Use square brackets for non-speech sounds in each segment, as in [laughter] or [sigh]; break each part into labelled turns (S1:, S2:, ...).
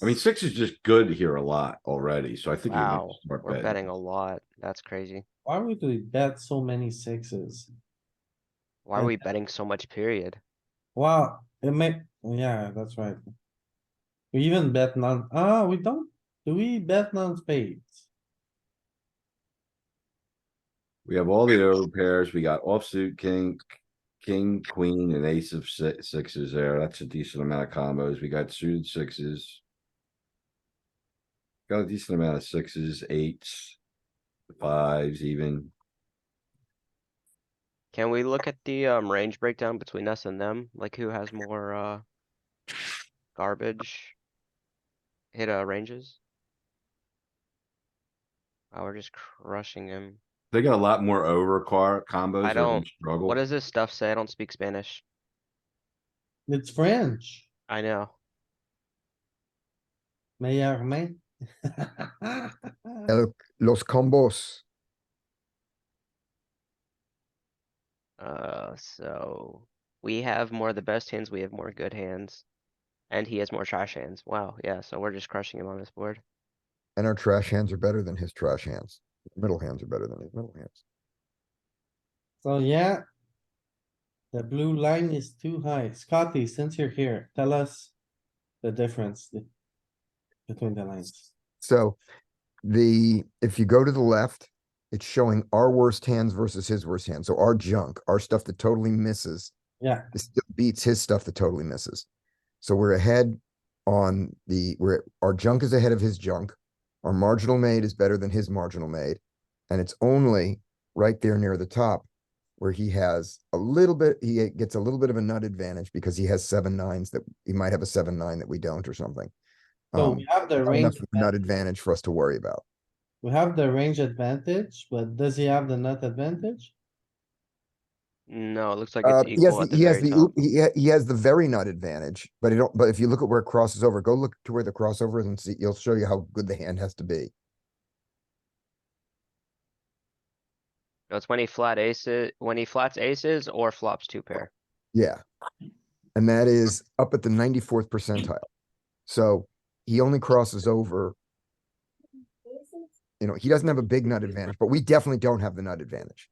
S1: I mean, six is just good here a lot already, so I think. you're
S2: Wow,
S1: making a smart
S2: we're
S1: bet.
S2: betting a lot. That's crazy.
S3: Why would we bet so many sixes?
S2: Why are
S3: Yeah.
S2: we betting so much period?
S3: Wow, it may, yeah, that's right. We even bet non, ah, we don't, do we bet non-spades?
S1: We have all the early pairs. We got offsuit, king, king, queen, and ace of si- sixes there. That's a decent amount of combos. We got suited sixes. Got a decent amount of sixes, eights, fives even.
S2: Can we look at the um range breakdown between us and them? Like who has more uh garbage hit uh ranges? Wow, we're just crushing him.
S1: They got a lot more over car combos.
S2: I
S1: they're gonna
S2: don't-
S1: Struggle.
S2: What does this stuff say? I don't speak Spanish.
S3: It's French,
S2: I know.
S3: meilleur main. [laughs]
S4: El- los combos.
S2: Uh, so we have more of the best hands. We have more good hands, and he has more trash hands. Wow, yeah. So we're just crushing him on this board.
S4: And our trash hands are better than his trash hands. Middle hands are better than his middle hands.
S3: So yeah. The blue line is too high. Scotty, since you're here, tell us the difference th- between the lines.
S4: So the, if you go to the left, it's showing our worst hands versus his worst hands. So our junk, our stuff that totally misses.
S3: Yeah.
S4: It still beats his stuff that totally misses. So we're ahead on the, we're, our junk is ahead of his junk. Our marginal made is better than his marginal made. And it's only right there near the top where he has a little bit, he gets a little bit of a nut advantage because he has seven nines that, he might have a seven, nine that we don't or something.
S3: So
S4: Um,
S3: we have Oh, the
S4: not enough
S3: range,
S4: of a
S3: advan-
S4: nut advantage for us to worry about.
S3: we have the range advantage, but does he have the nut advantage?
S2: No, it looks like
S4: Uh,
S2: it's
S4: he has,
S2: equal
S4: the-
S2: at the
S4: he has
S2: very
S4: the,
S2: top.
S4: oop- he, ha- he has the very nut advantage, but it don't, but if you look at where it crosses over, go look to where the crossover is and see, it'll show you how good the hand has to be.
S2: No, It's when he flat aces, when he flats aces or flops two pair.
S4: Yeah. And that is up at the ninety-fourth percentile. So he only crosses over. You know, he doesn't have a big nut advantage, but we definitely don't have the nut advantage.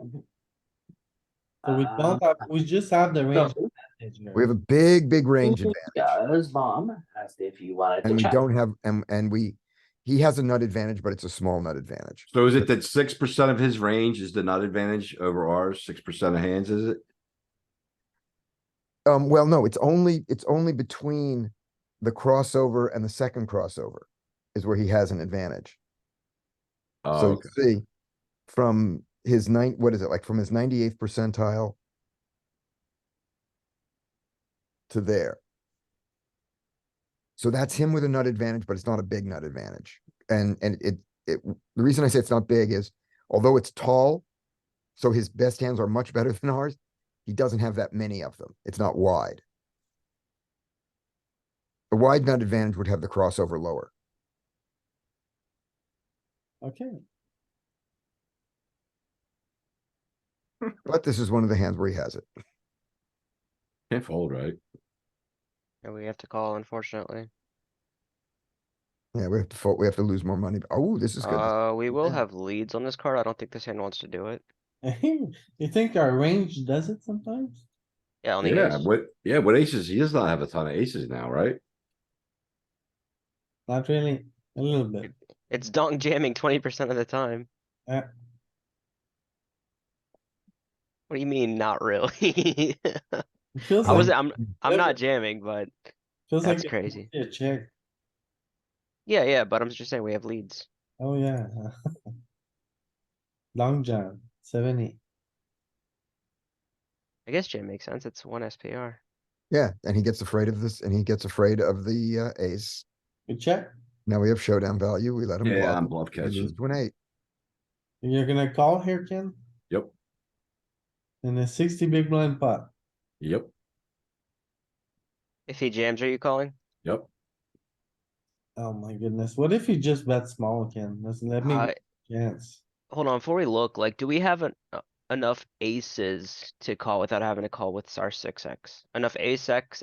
S3: So we don't have, we just have the range advantage
S4: We
S3: here.
S4: have a big, big range advantage.
S5: Goes bomb, as if you wanted
S4: And
S5: to
S4: we
S5: check.
S4: don't have, and, and we, he has a nut advantage, but it's a small nut advantage.
S1: So is it that six percent of his range is the nut advantage over ours? Six percent of hands, is it?
S4: Um, well, no, it's only, it's only between the crossover and the second crossover is where he has an advantage.
S1: Oh,
S4: So
S1: okay.
S4: you see, from his nine, what is it, like from his ninety-eighth percentile to there. So that's him with a nut advantage, but it's not a big nut advantage. And, and it, it, the reason I say it's not big is although it's tall, so his best hands are much better [laughs] than ours, he doesn't have that many of them. It's not wide. The wide nut advantage would have the crossover lower.
S3: Okay,
S4: But this is one of the hands where he has it.
S1: can't fold, right?
S2: And we have to call unfortunately.
S4: Yeah, we have to fold, we have to lose more money. Oh, this is good.
S2: Uh, we will
S4: Okay.
S2: have leads on this card. I don't think this hand wants to do it.
S3: [laughs] you think our range does it sometimes?
S2: Yeah, on the
S1: Yeah,
S2: ace.
S1: what, yeah, what aces? He does not have a ton of aces now, right?
S3: Not really, a little bit.
S2: It's dunk jamming twenty percent of the time.
S3: Uh.
S2: What do you mean, not really? [laughs]
S3: It feels
S2: I
S3: like-
S2: was, I'm, I'm
S3: Um, Yeah,
S2: not
S3: but-
S2: jamming, but
S3: feels like
S2: that's
S3: it
S2: crazy.
S3: must be A check,
S2: yeah, yeah, but I'm just saying we have leads.
S3: oh yeah. [laughs] Long jump, seventy.
S2: I guess jam makes sense. It's one SPR.
S4: Yeah, and he gets afraid of this, and he gets afraid of the uh, ace.
S3: You check,
S4: Now we have showdown value. We let him
S1: Yeah, I'm
S4: bluff.
S1: bluff
S4: He moves
S1: catching.
S4: to an eight.
S3: you're gonna call here, Ken?
S1: Yep,
S3: In a sixty big blind pot.
S1: yep,
S2: If he jams, are you calling?
S1: yep.
S3: Oh my goodness, what if you just bet small, Ken? Let's let me
S2: Uh,
S3: get a chance.
S2: Hold on, before we look, like, do we have an, uh, enough aces to call without having to call with our six X? Enough ace X